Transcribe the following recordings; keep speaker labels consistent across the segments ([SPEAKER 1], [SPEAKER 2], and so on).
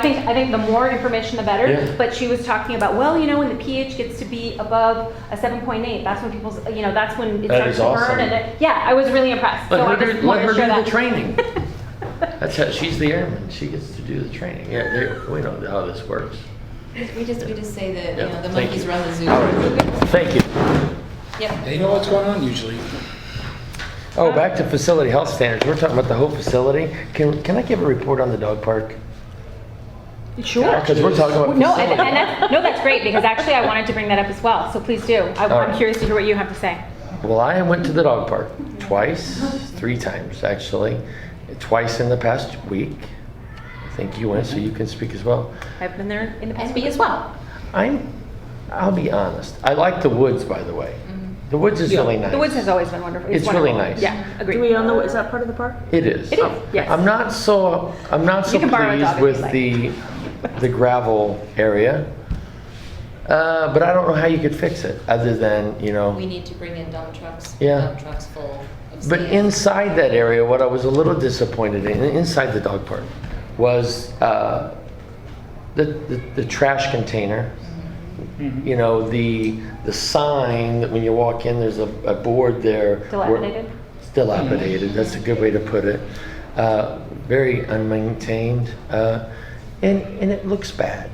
[SPEAKER 1] think, I think the more information, the
[SPEAKER 2] Yeah.
[SPEAKER 1] better. But she was talking about, well, you know, when the pH gets to be above a 7.8, that's when people's, you know, that's when it
[SPEAKER 2] That
[SPEAKER 1] starts
[SPEAKER 2] is
[SPEAKER 1] to
[SPEAKER 2] awesome.
[SPEAKER 1] burn. And it- Yeah, I was really impressed. So I
[SPEAKER 2] Let her
[SPEAKER 1] just
[SPEAKER 2] do, let
[SPEAKER 1] wanted
[SPEAKER 2] her
[SPEAKER 1] to
[SPEAKER 2] do
[SPEAKER 1] share
[SPEAKER 2] the
[SPEAKER 1] that.
[SPEAKER 2] training. That's how, she's the airman, she gets to do the training. Yeah, they- we know how this works.
[SPEAKER 3] We just, we just say that, you
[SPEAKER 2] Yeah,
[SPEAKER 3] know, the
[SPEAKER 2] thank
[SPEAKER 3] monkeys
[SPEAKER 2] you.
[SPEAKER 3] run the zoo.
[SPEAKER 2] All right, Thank you.
[SPEAKER 3] Yep.
[SPEAKER 4] They know what's going on usually.
[SPEAKER 2] Oh, back to facility health standards, we're talking about the whole facility. Can, can I give a report on the dog park?
[SPEAKER 1] Sure.
[SPEAKER 2] Because we're talking about
[SPEAKER 1] No, and,
[SPEAKER 2] facility.
[SPEAKER 1] and that's, no, that's great because actually I wanted to bring that up as well. So please do. I,
[SPEAKER 2] All right.
[SPEAKER 1] I'm curious to hear what you have to say.
[SPEAKER 2] Well, I went to the dog park twice, three times actually, twice in the past week. I think you went, so you can speak as well.
[SPEAKER 1] I've been there in the past
[SPEAKER 3] And
[SPEAKER 1] week
[SPEAKER 3] me
[SPEAKER 1] as well.
[SPEAKER 2] I'm, I'll be honest, I like the woods, by the way.
[SPEAKER 3] Mm-hmm.
[SPEAKER 2] The woods is
[SPEAKER 4] Yeah.
[SPEAKER 2] really nice.
[SPEAKER 1] The woods has always been wonderful.
[SPEAKER 2] It's really
[SPEAKER 1] wonderful.
[SPEAKER 2] nice.
[SPEAKER 1] Yeah,
[SPEAKER 5] Do we
[SPEAKER 1] agreed.
[SPEAKER 5] own the, is that part of the park?
[SPEAKER 2] It is.
[SPEAKER 1] It is, yes.
[SPEAKER 2] I'm not so, I'm not so
[SPEAKER 1] You can borrow a dog
[SPEAKER 2] pleased
[SPEAKER 1] if
[SPEAKER 2] with the,
[SPEAKER 1] you'd
[SPEAKER 2] the gravel area. Uh, but I don't know how you could fix it, other than, you know.
[SPEAKER 3] We need to bring in dump trucks.
[SPEAKER 2] Yeah.
[SPEAKER 3] Dump trucks full of sand.
[SPEAKER 2] But inside that area, what I was a little disappointed in, inside the dog park, was uh, the, the, the trash container. You know, the, the sign that when you walk in, there's a, a board there. where-
[SPEAKER 1] Dilapidated?
[SPEAKER 2] It's dilapidated, that's a good way to put it. Uh, very unmaintained, uh, and, and it looks bad.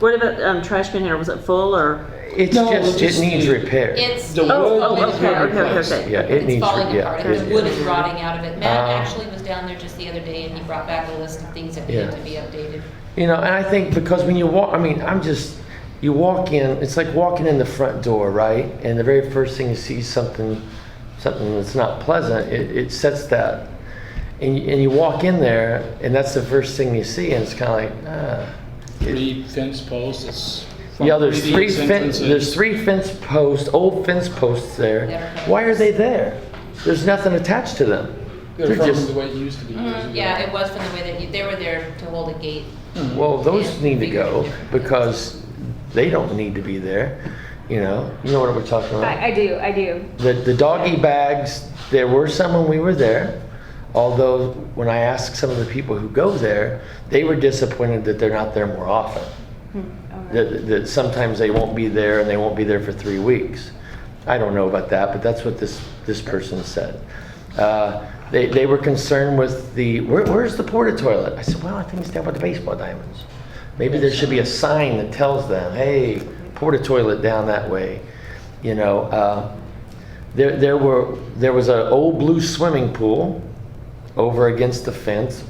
[SPEAKER 5] What about um, trash container? Was it full or?
[SPEAKER 2] It's
[SPEAKER 4] No,
[SPEAKER 2] just,
[SPEAKER 4] just
[SPEAKER 2] it needs
[SPEAKER 4] the-
[SPEAKER 2] repair.
[SPEAKER 3] It's. it's
[SPEAKER 4] The wood
[SPEAKER 5] oh,
[SPEAKER 3] falling
[SPEAKER 4] needs to be
[SPEAKER 5] okay, okay, okay,
[SPEAKER 4] replaced.
[SPEAKER 5] okay.
[SPEAKER 2] Yeah, it
[SPEAKER 3] It's
[SPEAKER 2] needs,
[SPEAKER 3] falling
[SPEAKER 2] yeah.
[SPEAKER 3] apart,
[SPEAKER 2] it-
[SPEAKER 3] the wood is rotting out of it. Matt
[SPEAKER 2] Ah.
[SPEAKER 3] actually was down there just the other day and he brought back a list of things that
[SPEAKER 2] Yeah.
[SPEAKER 3] needed to be updated.
[SPEAKER 2] You know, and I think because when you walk, I mean, I'm just, you walk in, it's like walking in the front door, right? And the very first thing you see is something, something that's not pleasant, it, it sets that. And you, and you walk in there, and that's the first thing you see, and it's kind of like, ah. It-
[SPEAKER 4] Three fence posts, it's.
[SPEAKER 2] Yeah, there's
[SPEAKER 4] from
[SPEAKER 2] three
[SPEAKER 4] these
[SPEAKER 2] fence,
[SPEAKER 4] entrances.
[SPEAKER 2] there's three fence posts, old fence posts there.
[SPEAKER 3] They're-
[SPEAKER 2] Why are they there? There's nothing attached to them.
[SPEAKER 4] They're
[SPEAKER 2] They're
[SPEAKER 4] from the
[SPEAKER 2] just,
[SPEAKER 4] way it used to be. years ago.
[SPEAKER 3] Mm, Yeah, it was from the way that, you- they were there to hold a gate.
[SPEAKER 4] Hmm.
[SPEAKER 2] well, those
[SPEAKER 3] Yeah.
[SPEAKER 2] need to go because they don't need to be there, you know? You know what we're talking about?
[SPEAKER 1] I, I do, I do.
[SPEAKER 2] The, the doggy bags, there were some when we were there, although when I asked some of the people who go there, they were disappointed that they're not there more often. That, that sometimes they won't be there and they won't be there for three weeks. I don't know about that, but that's what this, this person said. Uh, they, they were concerned with the, where, where's the porta toilet? I said, well, I think it's down by the baseball diamonds. Maybe there should be a sign that tells them, hey, porta toilet down that way, you know? uh, there, there were, there was an old blue swimming pool over against the fence.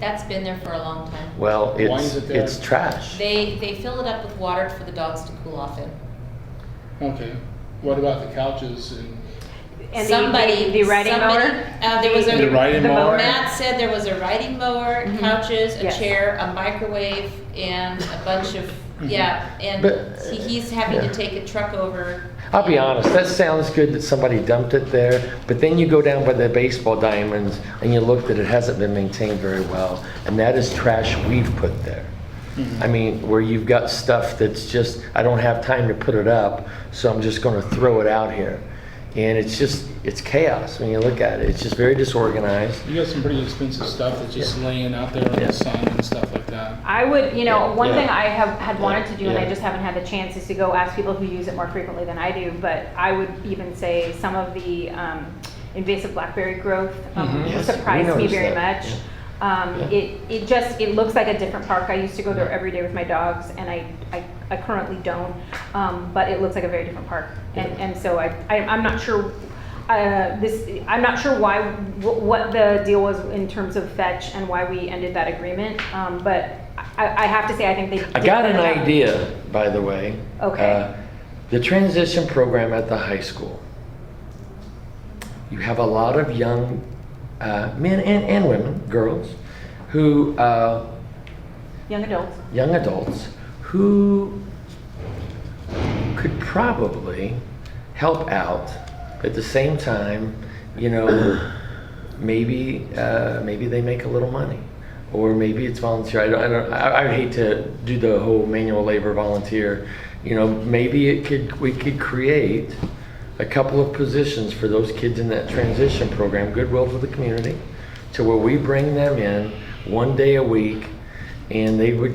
[SPEAKER 3] That's been there for a long time.
[SPEAKER 2] Well,
[SPEAKER 4] Why
[SPEAKER 2] it's,
[SPEAKER 4] is it there?
[SPEAKER 2] it's trash.
[SPEAKER 3] They, they fill it up with water for the dogs to cool off in.
[SPEAKER 4] Okay, what about the couches and?
[SPEAKER 1] And the-
[SPEAKER 3] Somebody,
[SPEAKER 1] The riding
[SPEAKER 3] somebody-
[SPEAKER 1] mower?
[SPEAKER 3] uh, there was a-
[SPEAKER 4] The riding
[SPEAKER 1] the
[SPEAKER 4] mower?
[SPEAKER 3] Matt said there was a riding mower, couches, a
[SPEAKER 1] Mm-hmm. Yes.
[SPEAKER 3] chair, a microwave, and a bunch of, yeah, and
[SPEAKER 2] Mm-hmm. But-
[SPEAKER 3] he- he's having
[SPEAKER 2] yeah.
[SPEAKER 3] to take a truck over.
[SPEAKER 2] I'll be
[SPEAKER 3] and-
[SPEAKER 2] honest, that sounds good that somebody dumped it there, but then you go down by the baseball diamonds and you look that it hasn't been maintained very well, and that is trash we've put there. I mean, where you've got stuff that's just, I don't have time to put it up, so I'm just gonna throw it out here. And it's just, it's chaos when you look at it, it's just very disorganized.
[SPEAKER 4] You got some pretty expensive stuff that's just laying out there in
[SPEAKER 2] Yeah.
[SPEAKER 4] the sun and stuff like that.
[SPEAKER 1] I would, you know,
[SPEAKER 2] Yeah.
[SPEAKER 1] one
[SPEAKER 2] Yeah.
[SPEAKER 1] thing I have had wanted to do, and I
[SPEAKER 2] Yeah.
[SPEAKER 1] just haven't had the chance, is to go ask people who use it more frequently than I do. But I would even say some of the um, invasive blackberry growth um,
[SPEAKER 4] Mhm.
[SPEAKER 2] Mm-hmm. Yes, we
[SPEAKER 1] surprised me
[SPEAKER 2] noticed
[SPEAKER 1] very
[SPEAKER 2] that,
[SPEAKER 1] much.
[SPEAKER 2] yeah.
[SPEAKER 1] Um,
[SPEAKER 2] Yeah.
[SPEAKER 1] It it just it looks like a different park. I used to go there every day with my dogs, and I I, I currently don't. Um, but it looks like a very different park, and and so I, I I'm not sure. Uh, this I'm not sure why wh- what the deal was in terms of fetch and why we ended that agreement. Um, but I, I have to say I think they.
[SPEAKER 2] I
[SPEAKER 1] did
[SPEAKER 2] got an
[SPEAKER 1] better than-
[SPEAKER 2] idea, by the way.
[SPEAKER 1] Okay.
[SPEAKER 2] Uh, The transition program at the high school. You have a lot of young uh, men and, and women, girls, who, uh,
[SPEAKER 1] Young adults.
[SPEAKER 2] young adults, who could probably help out at the same time, you know, maybe, uh, maybe they make a little money. Or maybe it's volunteer. I don't, I don't, I, I hate to do the whole manual labor volunteer. You know, maybe it could, we could create a couple of positions for those kids in that transition program, Goodwill for the Community, to where we bring them in one day a week and they would